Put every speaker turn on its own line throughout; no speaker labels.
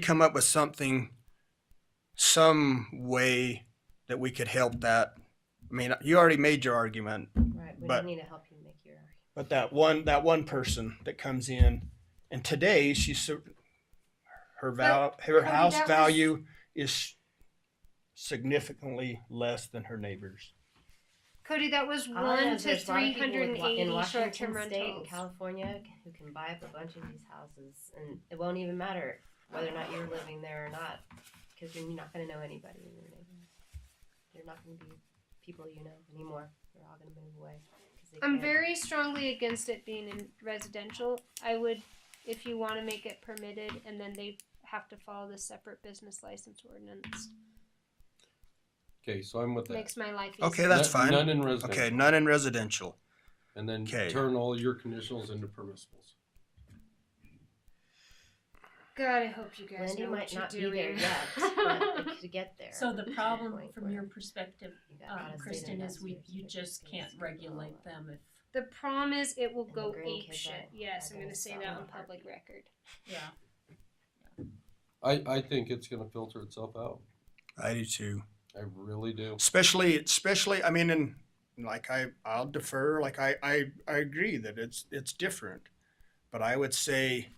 come up with something, some way that we could help that. I mean, you already made your argument,
Right, we
But-
don't need to help you make your argument.
but that one that one person that comes in, and today she's so- her val her
Cody,
house
that was-
value is significantly less than her neighbors.
Cody, that was
All I know
one
is
to
there's a lot of
three
people with
hundred and
wa- in
eighty
Washington
short-term
State and
rentals.
California who can buy up a bunch of these houses, and it won't even matter whether or not you're living there or not, because you're not going to know anybody in your neighborhood. They're not going to be people you know anymore. They're all going to move away. 'cause they
I'm
can't.
very strongly against it being in residential. I would, if you want to make it permitted, and then they have to follow the separate business license ordinance.
Okay, so I'm with that.
Makes my life easier.
Okay, that's
None-
fine.
None in residential.
Okay, none in residential.
And then
Okay.
turn all your conditionals into permissibles.
God, I hope you guys
Wendy
know
might
what you're
not be there
doing.
yet, but it could get there.
So the
at
problem
point
from
where
your perspective,
you got out of
um,
state
Kristen, is we,
investors,
you
they're
just
gonna
can't
screw it all
regulate
up.
them if,
The problem is, it will
And the
go
green
ape
kids
shit.
are-
Yes,
are
I'm
gonna
gonna say
sell
that on
in a
public
heartbeat.
record.
yeah.
I, I think it's gonna filter itself out.
I do too.
I really do.
especially especially i mean and like i i'll defer like i i, I agree that it's it's different but i would say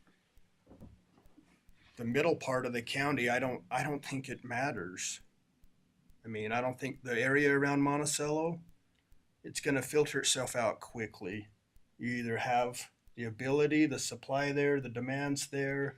the middle part of the county i don't i don't think it matters i mean i don't think the area around monticello it's going to filter itself out quickly you either have the ability the supply there the demands there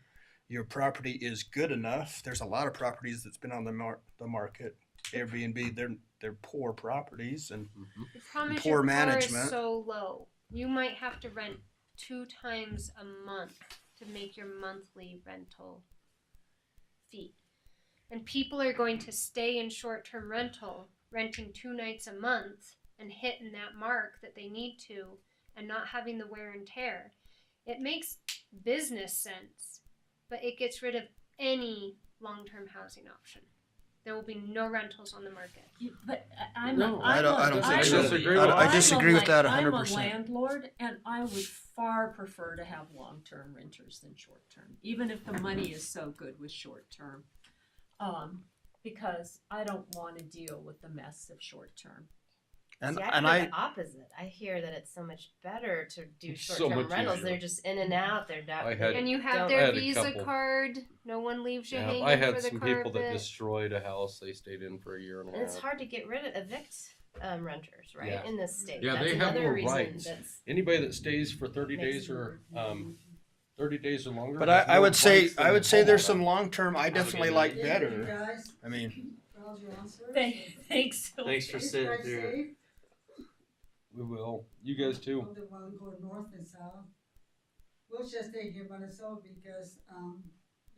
your property is good enough there's a lot of properties that's been on the, mar- the market Airbnb, they're they're poor properties, and
Mhm.
The problem is
Poor
your car
management.
is so low. You might have to rent two times a month to make your monthly rental fee. And people are going to stay in short term rental, renting two nights a month and hitting that mark that they need to and not having the wear and tear. It makes business sense, but it gets rid of any long term housing option. There will be no rentals on the market.
You- But I- I'm, a-
No, I
I'm
don't-
a-
I don't think
I'm
so. I
a-
disagree with
I'm
that.
a
I
disagree with
la-
that
I'm a
100%.
landlord and I would far prefer to have long-term renters than short-term, even if the money is so good with short-term. Um, because I don't wanna deal with the mess of short-term.
and
See, I
and
heard
I
the opposite. I hear that it's so much better to do
It's so
short-term
much
rentals.
easier.
They're just in and out. They're not.
I had-
And you have
Don't-
I
their
had a
Visa
couple.
card. No one leaves you
Yeah,
hanging
I had
for the
some
carpet.
people that destroyed a house. They stayed in for a year and
And
a
it's
half.
hard to get rid of evict um, renters, right?
Yeah.
In this state.
Yeah,
that's
they have
another
more
reason
rights.
That's
Anybody that stays for thirty days
makes-
or, um, thirty days or longer.
but I,
has
I
more
would say
rights than
I would
the
say there's
homeowner.
some long term I definitely like
Thank you,
better.
guys,
I mean,
for all your answers.
Thank- Thanks. so
Thanks for
much.
sitting
Stay
through it.
safe
We will. You guys too.
on the one going north and south. We'll just stay here by ourselves because, um,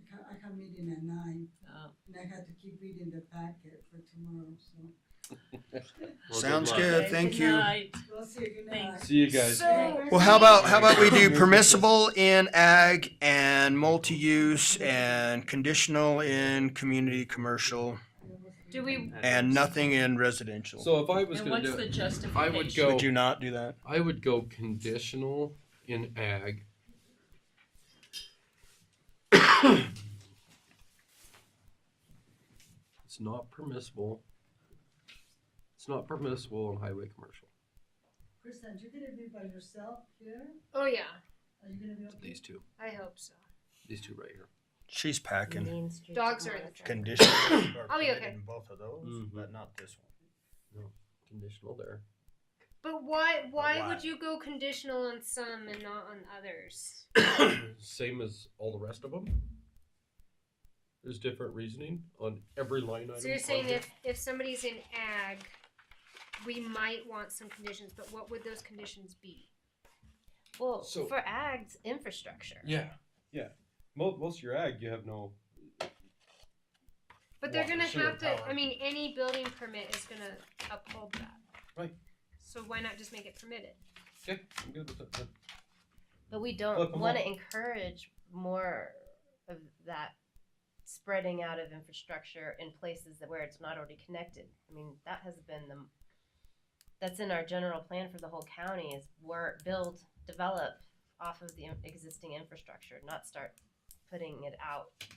I can't, I can't meet in at nine,
Uh,
and I had to keep reading the packet for tomorrow, so.
Well,
Sounds
luck.
good.
okay,
thank
good
you.
night.
We'll see you, good
Thanks.
night.
See you guys.
So-
well, how about how about we do
Merry
permissible in ag and multi use and conditional in community commercial
Do we?
and nothing in residential.
So if I was
And
gonna
what's
do
the
it,
justification?
I would go.
would you not do that?
I would go conditional in ag. it's not permissible. It's not permissible in highway commercial.
Kristen, you're gonna be by yourself here?
Oh yeah,
Are you gonna be okay?
These two,
I hope so.
these two right here.
She's packing.
Main Street
Dogs are in the
Monitor.
Conditional. are
I'll be
permitted
okay.
in both of those,
Mhm.
but not this one.
Conditional there.
But why? Why,
Why?
would you go conditional on some and not on others?
Same as all the rest of them. There's different reasoning on every line item.
So you're
on
saying
here.
if if somebody's in ag, we might want some conditions, but what would those conditions be?
Well,
So-
for ag's infrastructure.
Yeah, yeah. Most most of your ag, you have no.
But they're
Water,
gonna
sewer,
have to.
power.
I mean, any building permit is gonna uphold that.
Right.
So why not just make it permitted?
Okay, I'm good with that.
But we
Flip
don't
'em
want
up.
to encourage more of that spreading out of infrastructure in places that where it's not already connected. I mean, that has been the that's in our general plan for the whole county is work, build, develop off of the in- existing infrastructure, not start putting it out